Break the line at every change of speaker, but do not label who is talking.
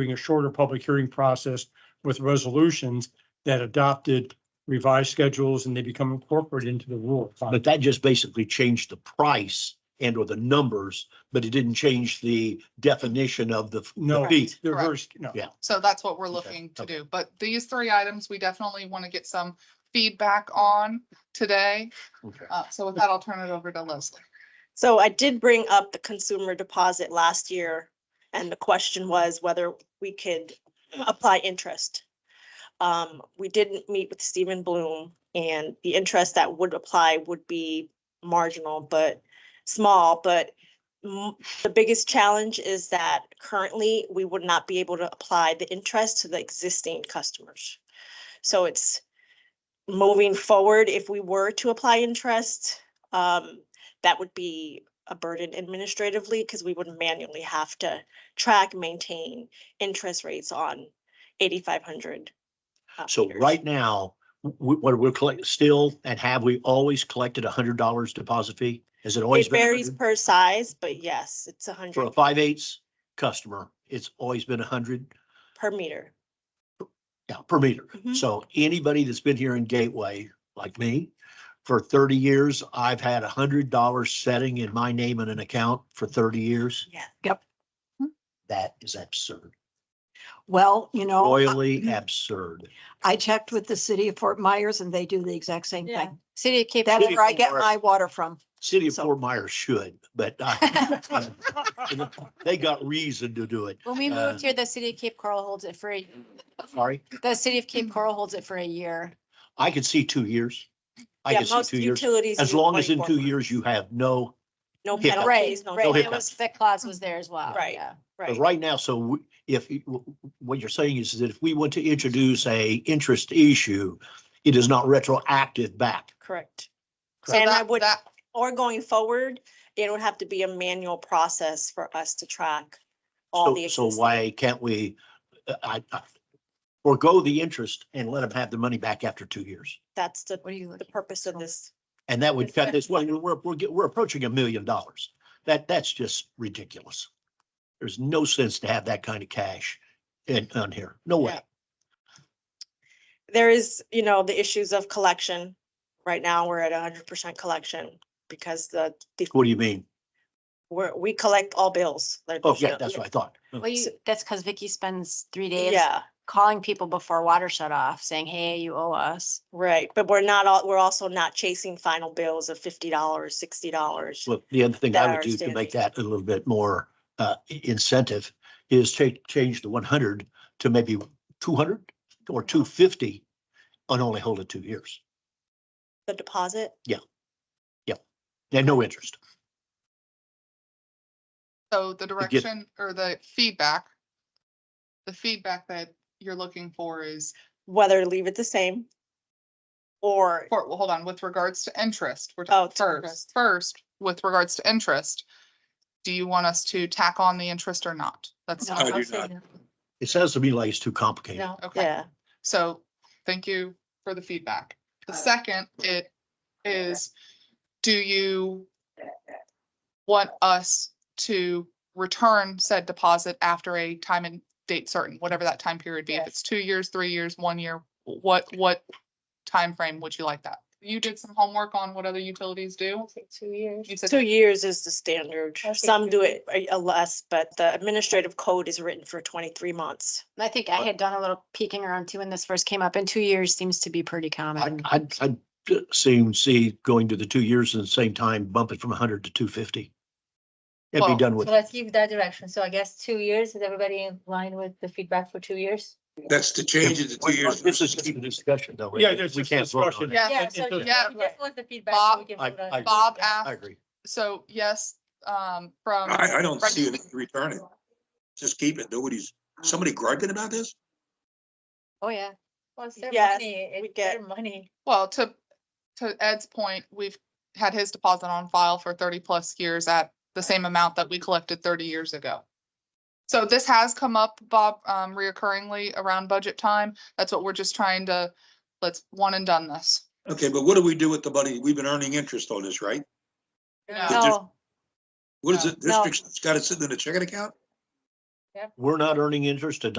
doing a shorter public hearing process with resolutions that adopted revised schedules and they become incorporated into the rule.
But that just basically changed the price and or the numbers, but it didn't change the definition of the
No,
fee.
they're very, no.
Yeah.
So that's what we're
Okay,
looking to
okay.
do. But these three items, we definitely want to get some feedback on today.
Okay.
Uh, so with that, I'll turn it over to Leslie.
So I did bring up the consumer deposit last year, and the question was whether we could apply interest. Um, we didn't meet with Stephen Bloom, and the interest that would apply would be marginal, but small, but m- the biggest challenge is that currently we would not be able to apply the interest to the existing customers. So it's moving forward, if we were to apply interest, um, that would be a burden administratively because we would manually have to track, maintain interest rates on eighty-five hundred. uh,
So right now, we, what we're collecting still, and have we always collected a hundred dollars deposit fee? Has it always
It
been?
varies
100?
per size, but yes, it's a
For a
hundred
five eighths customer, it's always been a hundred,
per meter.
yeah, per meter.
Mhm.
So anybody that's been here in Gateway, like me, for thirty years, I've had a hundred dollars setting in my name in an account for thirty years.
Yeah.
That is absurd,
Well, you
Oh,
know, I-
royally absurd.
I checked with the city of Fort Myers and they do the exact same
Yeah.
thing.
City of Cape.
That's
City of
where I
Fort
get
Myers.
my water from.
City of
So-
Fort Myers should, but I- they got reason to do it.
When we
uh,
moved here, the city of Cape Coral holds it for, a
Sorry,
the city of
Mm.
Cape Coral holds it for a year.
I could see two years. I
Yeah,
could see
most
two years.
utilities
As
do
long as in
24
two
months.
years you have no,
No
hiccup.
Right,
penalties, no.
right. It
hiccup.
was, that clause was there as well.
Right.
yeah.
because
Right.
right now, so we- if, what you're saying is that if we want to introduce a interest issue, it is not retroactive back.
Correct.
So
And I
that-
would-
that-
Or going forward, it would have to be a manual process for us to track all the.
So, so
existing-
why can't we, uh, I, I, forego the interest and let them have the money back after two years?
That's the,
What are you
the
looking?
purpose of this.
And that would cut this, well, we're, we're, get- we're approaching a million dollars. That, that's just ridiculous. There's no sense to have that kind of cash in, on here. No way.
Yeah. There is, you know, the issues of collection. Right now, we're at hundred percent collection because the, the,
What do you mean?
we're, we collect all bills. like,
Oh,
you
yeah,
know,
that's what I thought.
Well, you, that's because Vicky spends three days
Yeah,
calling people before water shut off, saying, hey, you owe us.
right. But we're not all, we're also not chasing final bills of fifty dollars, sixty dollars.
Well, the other thing
That
I
are
would do to make
standing.
that a little bit more, uh, i- incentive is take, change the one hundred to maybe two hundred or two fifty and only hold it two years.
The deposit,
And no interest.
So the
get-
direction or the feedback, the feedback that you're looking for is,
whether leave it the same or
for- well, hold on, with regards to interest, we're
Oh,
talking
to
first,
interest.
first, with regards to interest. Do you want us to tack on the interest or not? That's,
No,
not-
I'll say no.
It sounds to me like it's too complicated.
No,
okay.
Yeah,
So thank you for the feedback. The second it is, do you want us to return said deposit after a time and date certain, whatever that time period be? If it's two years, three years, one year, what, what time frame would you like that? You did some homework on what other utilities do?
Two years.
You said
two years is the standard.
Okay,
Some
two
do it a- a less, but the administrative code is written for twenty-three months.
I think I had done a little peeking around too when this first came up and two years seems to be pretty
I,
common.
I'd, I'd soon see going to the two years and at the same time bump it from hundred to two fifty. It'd be
Well,
done with,
So let's give that direction. So I guess two years, is everybody in line with the feedback for two years?
That's to change it to two years.
this is just a discussion though.
Yeah, there's
We
just
can't vote
discussion.
on it.
Yeah,
Yeah,
it-
so
it does-
just just
Yeah.
want the feedback. so we
Bob-
can
I-
put on-
I-
Bob
Yeah.
I
asked,
agree.
so yes, um, from.
I, I don't see it returning. Just keep it. Nobody's, somebody griping about this?
Oh, yeah.
Well, it's their
Yes,
money,
we
it's their
get-
money.
Well, to, to Ed's point, we've had his deposit on file for thirty plus years at the same amount that we collected thirty years ago. So this has come up, Bob, um, reoccurringly around budget time. That's what we're just trying to, let's one and done this.
Okay, but what do we do with the money? We've been earning interest on this, right?
No.
Just-
No,
Oh.
What is it?
No.
District's got it sitting in a checking account?
Yep.
We're not earning interest and